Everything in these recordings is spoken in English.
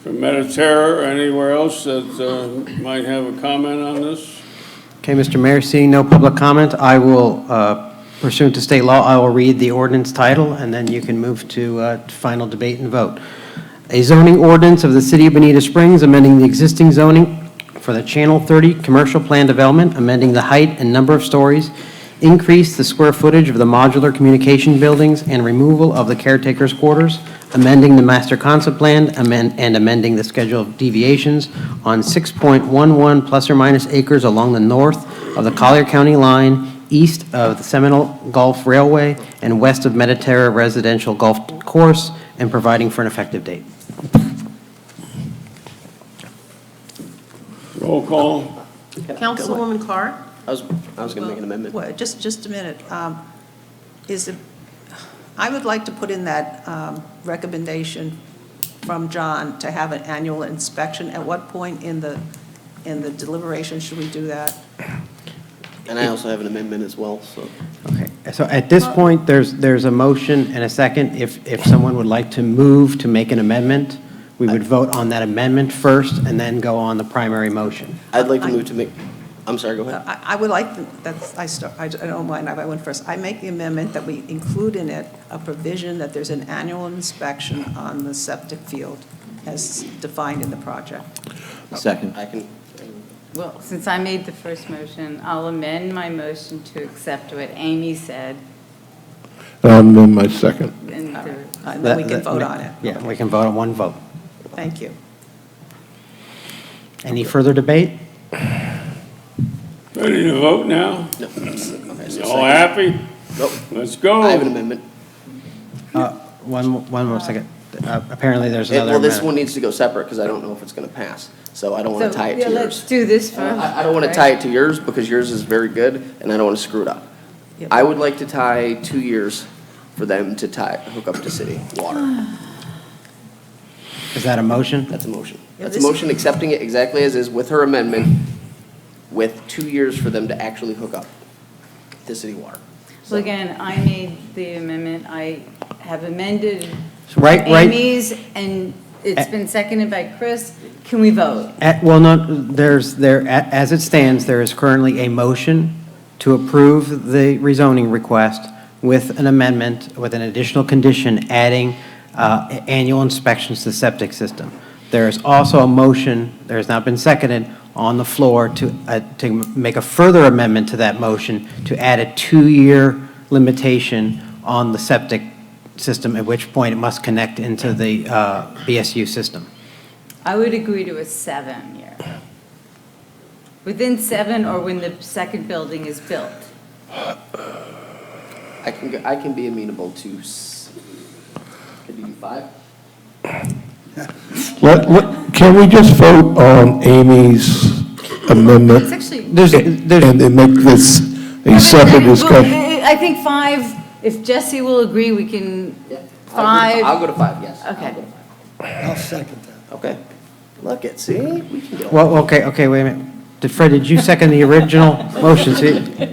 from Mediterra or anywhere else that uh, might have a comment on this? Okay, Mr. Mayor, seeing no public comment, I will uh, pursuant to state law, I will read the ordinance title, and then you can move to uh, final debate and vote. A zoning ordinance of the City of Bonita Springs amending the existing zoning for the Channel 30 Commercial Plan Development, amending the height and number of stories, increase the square footage of the modular communication buildings, and removal of the caretaker's quarters, amending the master concept plan, amend- and amending the schedule of deviations on 6.11 plus or minus acres along the north of the Collier County line, east of the Seminole Gulf Railway, and west of Mediterra Residential Golf Course, and providing for an effective date. Roll call? Councilwoman Clark? I was, I was going to make an amendment. Wait, Just, just a minute. Um, Is it, I would like to put in that um, recommendation from John to have an annual inspection. At what point in the, in the deliberation should we do that? And I also have an amendment as well, so. Okay, so at this point, there's, there's a motion and a second. If, if someone would like to move to make an amendment, we would Uh, vote on that amendment first and then go on the primary motion. I'd like to I- move to make, I'm sorry, go ahead. I, I would like, to- that's, I start, I don't mind, I went first. I make the amendment that we include in it a provision that there's an annual inspection on the septic field as defined in the project. Second. I can, Well, since I made the first motion, I'll amend my motion to accept what Amy said And Um, then my second. and the Uh, And then we can vote on it. Yeah, we can vote on one vote. Thank you. Any further debate? Ready to vote now? no. Okay, so All second. happy? Nope. Let's go. I have an amendment. Uh, One, mo- one more second. Uh, Apparently, there's It- another Well, this amendment. one needs to go separate because I don't know if it's going to pass. So I don't want to So, tie it yeah, to Let's yours. do this Oh, first. I, I don't want to right? tie it to yours because yours is very good and I don't want to screw it up. Yep. I would like to tie two years for them to tie, hook up to city water. Is that a motion? That's a motion. Yeah, That's a this- motion accepting it exactly as is with her amendment, with two years for them to actually hook up to city water. Well, again, I made the amendment, I have amended Right, right. Amy's, and it's been seconded by Chris. Can we vote? At- Well, no, there's, there, a- as it stands, there is currently a motion to approve the rezoning request with an amendment, with an additional condition adding uh, a- annual inspections to the septic system. There is also a motion, there has not been seconded, on the floor to, uh, to make a further amendment to that motion to add a two-year limitation on the septic system, at which point it must connect into the uh, BSU system. I would agree to a seven year. Within seven or when the second building is built. I can, go- I can be amenable to, s- could you do five? Let, let, can we just vote on Amy's amendment? It's actually- There's- there's- And then make this a separate Well, discussion? I I think five, if Jesse will agree, we can, Yeah, I'll go to- I'll five. go to five, yes. I'll Okay. go to five. Okay. Look at, see, we can get. Well, okay, okay, wait a minute. Did Fred, did you second the original motion? See- Okay,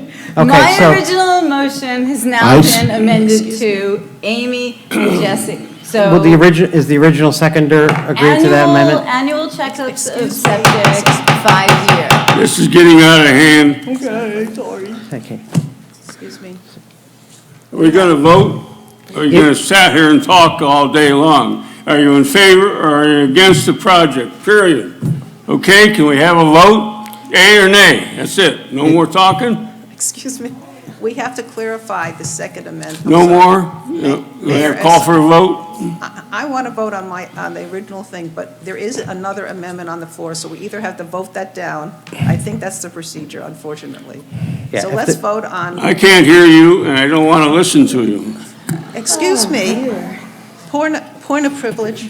My so, original motion has I now s- been amended to Amy and Jesse, so. will the original, is the original seconder agree to that annual- amendment? Annual checkups of septic, five year. This is getting out of hand. Okay. Excuse me. Are we going to vote? Or Are you going to sat here and talk all day long? Are you in favor or are you against the project, period? Okay, can we have a vote? Yea or nay? That's it. No more talking? Excuse me. We have to clarify the second amendment. No more? No. We have a Call for a vote? I, I want to vote on my, on the original thing, but there is another amendment on the floor, so we either have to vote that down. I think that's the procedure, unfortunately. Yeah, So if let's the- vote on, I can't hear you and I don't want to listen to you. excuse Oh, me, point, point of privilege.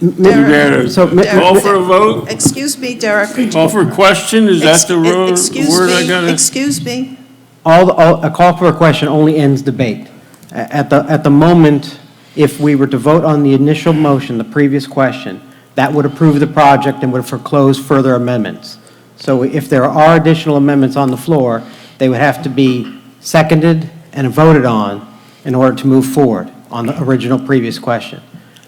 You better So, ma- call for a vote? Excuse me, Derek. Call for a question? Is that the ro- Ex- excuse word I me, gotta? Excuse me. All, all, a call for a question only ends debate. A- At the, at the moment, if we were to vote on the initial motion, the previous question, that would approve the project and would foreclose further amendments. So if there are additional amendments on the floor, they would have to be seconded and voted on in order to move forward on the original previous question.